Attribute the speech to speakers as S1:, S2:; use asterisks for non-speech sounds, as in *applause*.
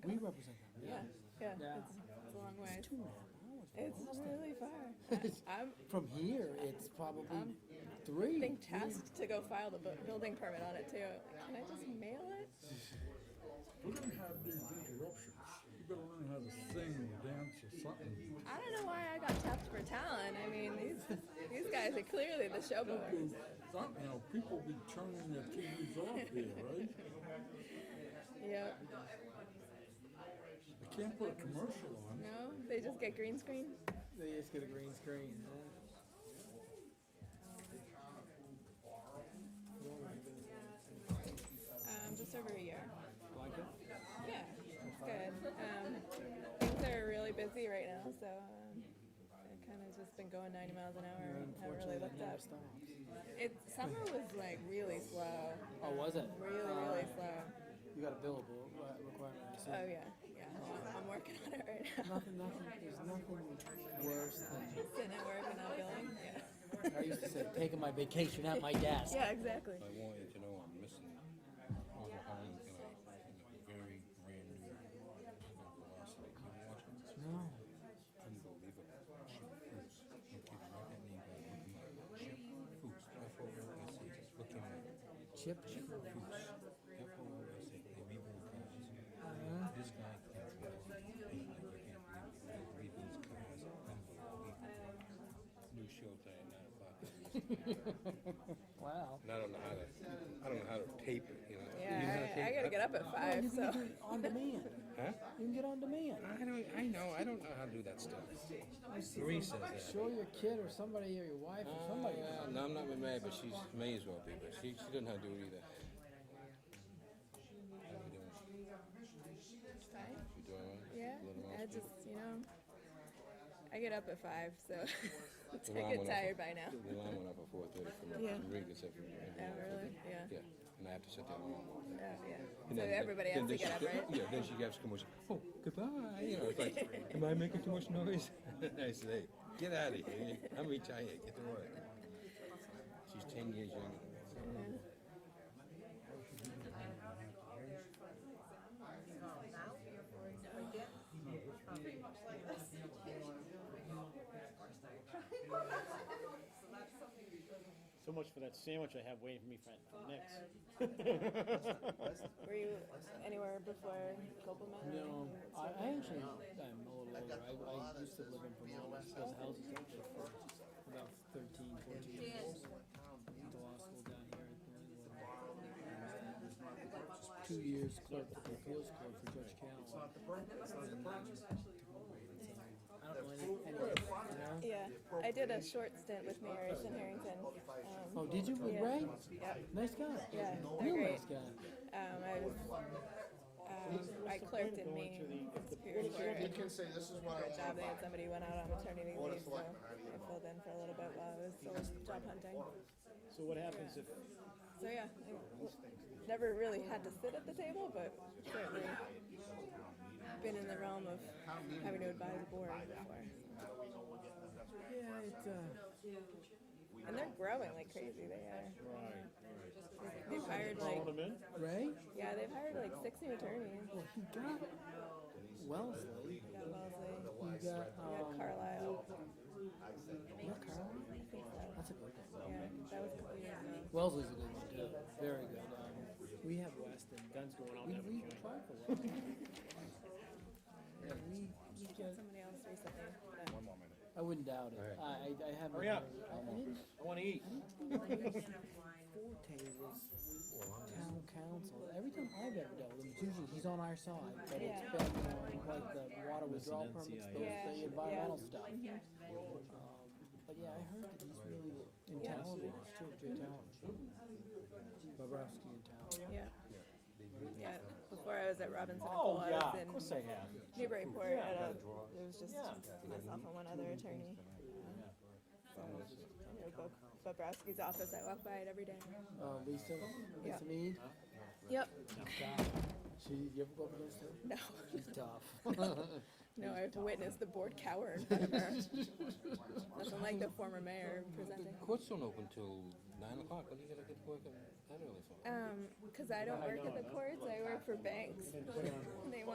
S1: represent them.
S2: Yeah, yeah,
S3: Yeah.
S2: it's, it's a long way.
S1: Two and a half hours.
S2: It's really
S1: *laughs*
S2: far. I, I'm,
S1: From here, it's probably
S2: I'm
S1: three.
S2: being tasked to go file the bu- building permit on it too. Can I just mail it?
S4: We're gonna have these interruptions. You better learn how to sing or dance or something.
S2: I don't know why I got tapped for talent. I mean, these these guys are clearly the showboaters.
S4: Something, you know, people be turning their TVs off here, right?
S2: Yep.
S4: I can't put a commercial on.
S2: No, they just get green screen.
S3: They just get a green screen.
S2: Um, just over a year.
S3: Like it?
S2: Yeah, it's good. Um, things are really busy right now, so um, I kind of just been going 90 miles an hour and haven't really looked up. It summer was like really slow,
S3: Oh, was it?
S2: really really slow.
S3: You got a billable uh, requirement. I see.
S2: Oh yeah, yeah. I'm- I'm working on it right
S1: *laughs*
S2: now.
S1: Nothing, nothing, there's nothing worse than,
S2: Sitting at work and not billing. Yeah.
S3: I used to say, taking my vacation at my desk.
S2: Yeah, exactly.
S5: I want you to know I'm missing Uncle Holland tonight in a very brand new event last night. You watch it?
S1: no.
S5: Unbelievable. Chip Foose. No kidding, write that name down. Look him up. Chip
S1: Chip,
S5: Foose. F O O S H. Just look him up. Chip Foose. F O O S H. They rebuild cars. This guy can drive a plane like you can't believe it. He rebuilds cars. Unbelievable. New show tonight at 9 o'clock.
S3: Wow.
S5: And I don't know how to, I don't know how to tape it, you know. You know how
S2: Yeah,
S5: to
S2: I,
S5: tape
S2: I
S5: it?
S2: gotta get up at five,
S1: you
S2: so.
S1: can
S2: *laughs*
S1: get it on demand.
S5: Huh?
S1: You can get on demand.
S5: I don't. I know. I don't know how to do that stuff. Marie says that.
S1: Show your kid or somebody or your wife or
S2: Oh,
S1: somebody.
S5: Uh, no, I'm not with Mary, but she's may as well be. But she she doesn't know how to do it either. How you doing? You doing? all right?
S2: Yeah,
S5: A little
S2: I
S5: roast
S2: just, you know, I get up at five, so *laughs*
S5: The
S2: I get
S5: alarm went off
S2: tired
S5: at-
S2: by now.
S5: The alarm went off at four thirty for me.
S2: Yeah.
S5: Marie gets up. every- every
S2: Oh,
S5: hour.
S2: really? Yeah.
S5: Yeah, and I have to set that alarm. off.
S2: Oh, yeah.
S5: And
S2: So
S5: then-
S2: everybody
S5: then-
S2: has to
S5: then
S2: get up,
S5: she-
S2: right?
S5: Yeah, then she gives commotion.
S2: *laughs*
S5: Oh, goodbye. You know, it's like, *laughs* am I making too much noise? I say, hey, get out of here. I'm retired. Get to work. She's ten years younger than me.
S6: So much for that sandwich I have waiting for me for for next.
S2: Were you anywhere before Copeland?
S3: No, I, I actually am a little older. I, I used to live in Vermont. Those houses actually for about 13, 14 years. Went to law school down here at Glenwood. Two years clerk at the appeals court for Judge Callow. I don't know any, any
S2: Yeah, I did a short stint with Mayor's in Harrington. Um,
S1: Oh, did you with
S2: Yeah.
S1: Ray?
S2: yeah,
S1: Nice guy.
S2: yeah, they're
S1: Real
S2: great.
S1: nice guy.
S2: Um, I was, um, I clerked in Maine Superior Court.
S7: You can say this is what I
S2: Good job,
S7: want.
S2: they had somebody went out on maternity leave, so I filled in for a little bit while I was still job hunting.
S6: *laughs* So what happens if,
S2: So yeah, I never really had to sit at the table, but certainly been in the realm of having to advise a board before.
S1: Yeah, it's, uh,
S2: And they're growing like crazy. They are. They've hired like
S6: come in?
S1: Ray?
S2: yeah, they've hired like six new attorneys.
S1: Well, he got Wellesley.
S2: Yeah, Wellesley.
S3: uh,
S1: He got,
S2: Yeah,
S1: um,
S2: Carlisle.
S1: yeah, Carl.
S2: I think so.
S1: That's a good one.
S2: Yeah, that was a couple years ago.
S1: Wellesley's a good one, too. Very good. Um, we have Weston.
S6: Guns going out
S1: We,
S6: never
S1: we
S6: join.
S1: tried for Wellesley. *laughs* Yeah, we, we get,
S2: Somebody else recently.
S1: I wouldn't doubt it. I, I, I haven't.
S6: Hurry up.
S1: heard- I, I didn't
S6: I wanna eat.
S1: forte was town council. Every time I've ever dealt with him, it's usually he's on our side, but it's
S2: Yeah.
S1: been um, like the water withdrawal permits, those,
S2: Yeah,
S1: the
S2: yeah.
S1: environmental stuff. Um, But yeah, I heard that he's really in town, he's still in town. Bobrovsky in town.
S2: Yeah. Yeah. Before I was at Robinson,
S6: Oh,
S2: Cole, I was in
S6: I have.
S2: Newburyport at a, it was just myself and one other attorney. Um, So, you know, Bob- Bobrowski's office, I walk by it every day.
S1: Uh, Lisa,
S2: Yeah.
S1: Lisa Mead,
S2: Yep,
S1: God, she, you ever go up against her?
S2: no,
S1: She's tough.
S2: no, I have to witness the board cower in front of her. Nothing like the former mayor presenting.
S5: Courts don't open till nine o'clock. What do you gotta get to work at that early for?
S2: Um, cause I don't work at the courts, I work for banks. They want